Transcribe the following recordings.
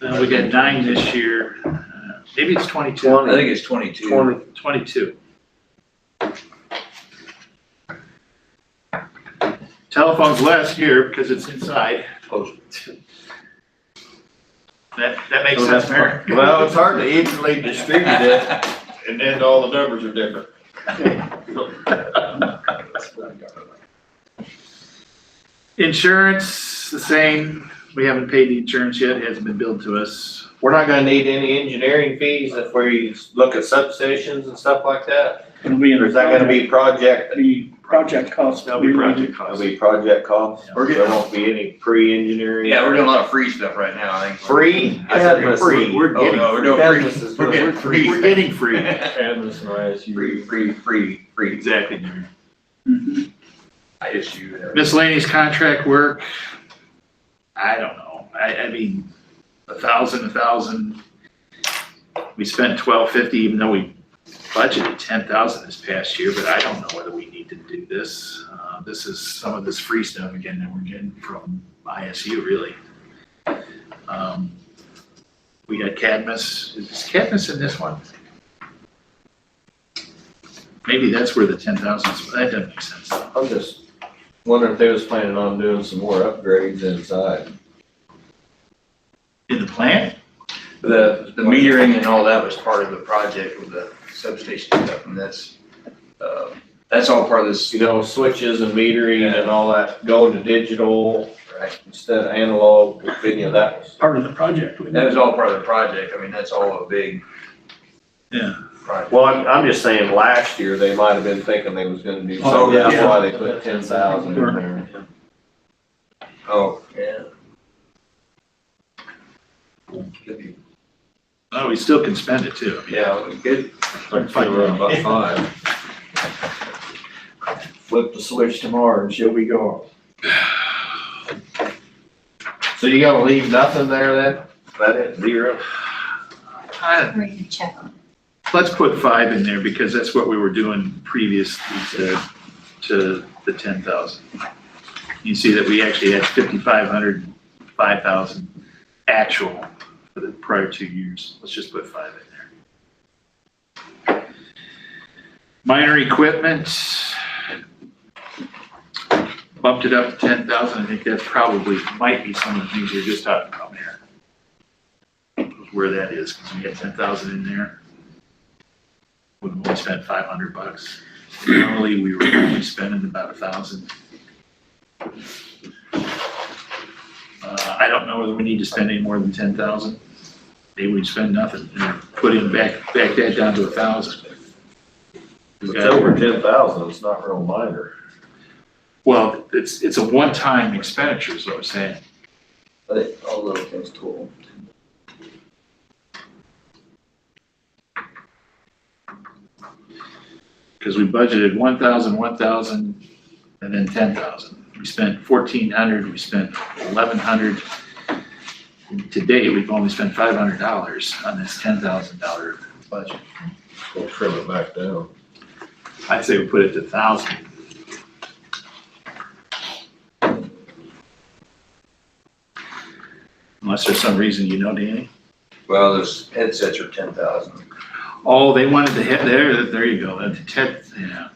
Uh, we got nine this year, Uh, maybe it's twenty-two, Twenty. I think it's twenty-two. Twenty, twenty-two. Telephone's less here because it's inside, Oh, that, that makes So sense, Mayor. that's well, it's hard to evenly distribute it, and then all the numbers are different. Insurance, the same, we haven't paid the insurance yet, it hasn't been billed to us. We're not gonna need any engineering fees if we look at substations and stuff like that? It'll be in Or the. is that gonna be project, The project cost. That'll be project costs. it'll be project costs? We're There getting, won't be any pre-engineering? Yeah, we're doing a lot of free stuff right now, I think. Free? I Yeah, said but free. We're Oh, getting, no, we're doing free. Business is We're doing- getting free. we're getting free, Free, free, free, free. exactly, Mayor. Mhm. I issue. there. Miscellaneous contract work, I don't know, I, I mean, a thousand, a thousand. We spent twelve fifty, even though we budgeted ten thousand this past year, but I don't know whether we need to do this. Uh, this is some of this free stuff again that we're getting from ISU, really. Um, We got Cadmus, is Cadmus in this one? Maybe that's where the ten thousand, that doesn't make sense though. I'm just wondering if they was planning on doing some more upgrades inside. In the plant? The, the metering and all that was part of the project with the substation stuff, and that's, uh, that's all part of this, You know, switches and metering and all that, going to digital right? instead of analog, if any of that was. Part of the project. wouldn't That it? was all part of the project, I mean, that's all a big. Yeah. Project. Well, I'm, I'm just saying, last year, they might have been thinking they was gonna do Oh, something, that's yeah. why they put ten thousand in there. Oh, yeah. Could be Oh, we still can spend it too. Yeah, we could About five. flip the switch tomorrow and she'll be gone. So you gonna leave nothing there then? That is zero? I- We're gonna check on Let's put five in there because that's what we were doing previously to, to the ten thousand. You see that we actually had fifty-five hundred, five thousand actual for the prior two years. Let's just put five in there. Minor equipment. Bumped it up to ten thousand. I think that probably might be some of the things you're just talking about there. Where that is, because we had ten thousand in there would have only spent five hundred bucks. Normally, we were only spending about a thousand. Uh, I don't know whether we need to spend any more than ten thousand. Maybe we'd spend nothing and put in back, back that down to a thousand. It's over ten thousand, it's not real minor. Well, it's, it's a one-time expenditure is what I'm saying. But it, all little things cool. Because we budgeted one thousand, one thousand, and then ten thousand. We spent fourteen hundred, we spent eleven hundred. To date, we've only spent five hundred dollars on this ten thousand dollar budget. We'll trim it back down. I'd say we put it to thousand. Unless there's some reason you know, Danny. Well, those headsets are ten thousand. Oh, they wanted to hit, there, there you go, that ten, yeah,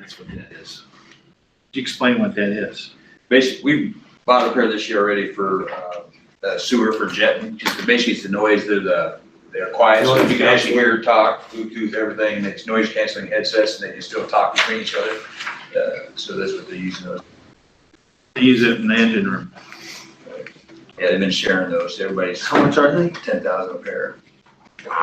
that's what that is. Could you explain what that is? Basically, we bought a pair this year already for, uh, uh, sewer for jetting, just basically it's the noise, they're the, they're quiet, so you can actually hear talk, Bluetooth, everything, and it's noise canceling headsets, and they can still talk between each other. Uh, so that's what they're using those. They use it in the engine room. Yeah, they've been sharing those, everybody's How much are they? ten thousand a pair.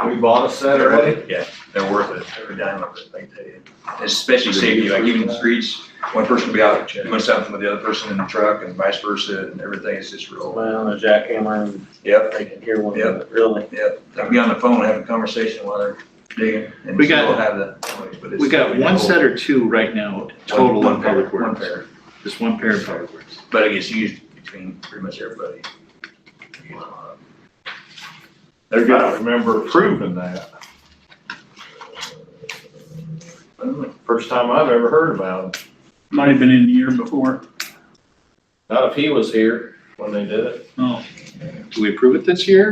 We bought a set already? Yeah, they're worth it, every dime of it, I can tell you. Especially safety, like even the streets, one person will be out doing something with the other person in the truck and vice versa and everything, it's just real. Well, on a jackhammer and Yep, they can hear one Yep. another, really. yep. They'll be on the phone, have a conversation while they're digging. and We got- still have the noise, but it's- We got one set or two right now total One- in one pair, public One works. pair, Just one pair of public works. but it gets used between pretty much everybody. Uh, They're gonna remember proving that. First time I've ever heard about it. Might have been in the year before. Not if he was here when they did it. Oh. Do we approve it this year?